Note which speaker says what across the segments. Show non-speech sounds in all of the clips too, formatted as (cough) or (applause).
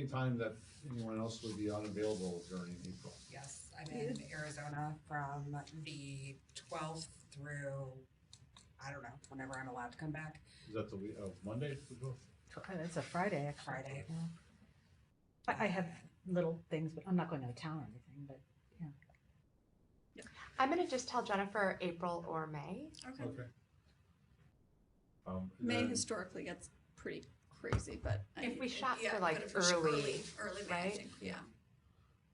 Speaker 1: Anytime that anyone else would be unavailable during April.
Speaker 2: Yes, I'm in Arizona from the twelfth through, I don't know, whenever I'm allowed to come back,
Speaker 1: Is that the week of Monday?
Speaker 3: And it's uh, a Friday, actually.
Speaker 2: Friday.
Speaker 3: I, I have little things, but I'm not going out of town or anything, but
Speaker 4: I'm gonna just tell Jennifer April or May.
Speaker 5: Okay.
Speaker 1: Okay. Um,
Speaker 5: May
Speaker 1: then-
Speaker 5: historically gets pretty crazy, but. I-
Speaker 4: If we shot
Speaker 5: yeah,
Speaker 4: for, like,
Speaker 5: but if we shoot
Speaker 4: early,
Speaker 5: Early, May, I
Speaker 4: right?
Speaker 5: think, yeah.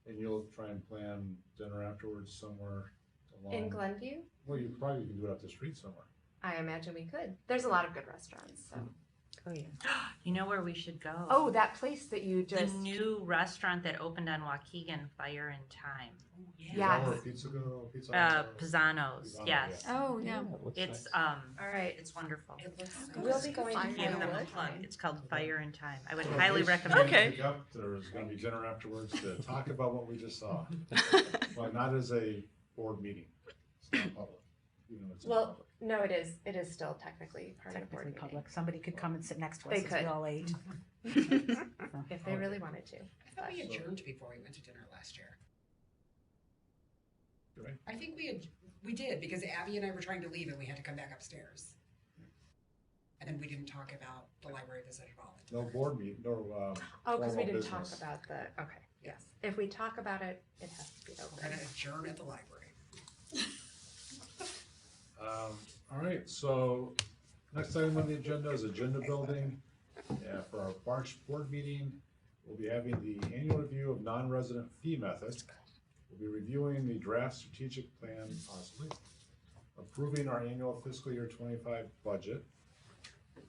Speaker 1: And you'll try and plan dinner afterwards somewhere along.
Speaker 3: Um,
Speaker 4: In Glenview,
Speaker 1: Well, you probably can do it out the street somewhere.
Speaker 4: I imagine we could. There's a lot of good restaurants, so.
Speaker 3: Mm-hmm.
Speaker 6: Oh, yeah. You know where we should go?
Speaker 4: Oh, that place that you
Speaker 6: The
Speaker 4: just,
Speaker 6: new restaurant that opened on Waukegan, Fire and Time.
Speaker 1: Yeah.
Speaker 4: Yes.
Speaker 1: Pizza go, pizza.
Speaker 6: Uh,
Speaker 1: Hut.
Speaker 6: Pisano's,
Speaker 1: Pisano,
Speaker 6: yes.
Speaker 5: Oh, yeah.
Speaker 1: looks
Speaker 6: It's,
Speaker 1: nice.
Speaker 6: um,
Speaker 4: all right.
Speaker 6: it's wonderful.
Speaker 2: It looks so
Speaker 4: We'll
Speaker 2: good.
Speaker 4: be going
Speaker 6: I
Speaker 4: to
Speaker 6: gave them a
Speaker 4: Firewood.
Speaker 6: plug. It's called Fire and Time. I would
Speaker 1: So
Speaker 6: highly
Speaker 1: in case you
Speaker 6: recommend.
Speaker 1: didn't pick up, There's gonna be dinner afterwards to talk about what we just
Speaker 6: (laughs)
Speaker 1: saw. But not as a board meeting. It's not public, even though it's in
Speaker 4: Well,
Speaker 1: public.
Speaker 4: No, it is, it is still technically part of the board
Speaker 3: technically
Speaker 4: meeting.
Speaker 3: public. Somebody could come and sit next to
Speaker 4: They
Speaker 3: us as we
Speaker 4: could.
Speaker 3: all
Speaker 4: (laughs)
Speaker 3: ate.
Speaker 4: If they really wanted to.
Speaker 2: I thought we adjourned before we went to dinner last year.
Speaker 1: Did we?
Speaker 2: I think we had, we did, because Abby and I were trying to leave and we had to come back upstairs. And then we didn't talk about the library visit at all.
Speaker 1: No board meeting, no, um.
Speaker 4: Oh, because we
Speaker 1: formal
Speaker 4: didn't talk
Speaker 1: business.
Speaker 4: about the, okay, yes. If we talk about it, it has to be
Speaker 2: We're
Speaker 4: open.
Speaker 2: gonna adjourn at the library.
Speaker 1: Um, all right, so next item on the agenda is agenda building. Yeah, for our March board meeting, we'll be having the annual review of non-resident fee method. We'll be reviewing the draft strategic plan possibly, approving our annual fiscal year twenty-five budget.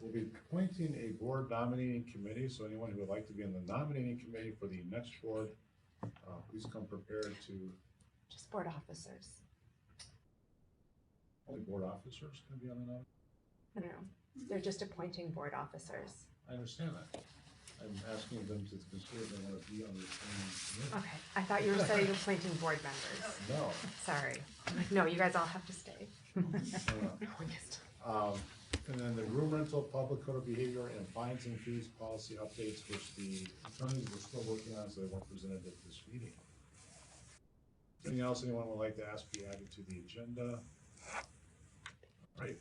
Speaker 1: We'll be appointing a board nominating committee, so anyone who would like to be on the nominating committee for the next board, uh, please come prepared to,
Speaker 4: Just board officers.
Speaker 1: only board officers can be on the nominating.
Speaker 4: I don't know. They're just appointing board officers.
Speaker 1: I understand that. I'm asking them to consider if they want to be on the same
Speaker 4: Okay. I thought you were saying you're appointing board members.
Speaker 1: committee. No,
Speaker 4: Sorry. I'm like, no, you guys all have to stay.
Speaker 1: no, no. Um, and then the room rental, public code of behavior, and fines and fees policy updates, which the attorneys were still working on, so they weren't presented at this meeting. Anything else anyone would like to ask be added to the agenda? Right,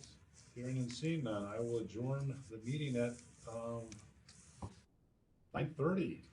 Speaker 1: hearing and seeing none, I will adjourn the meeting at, um, nine thirty.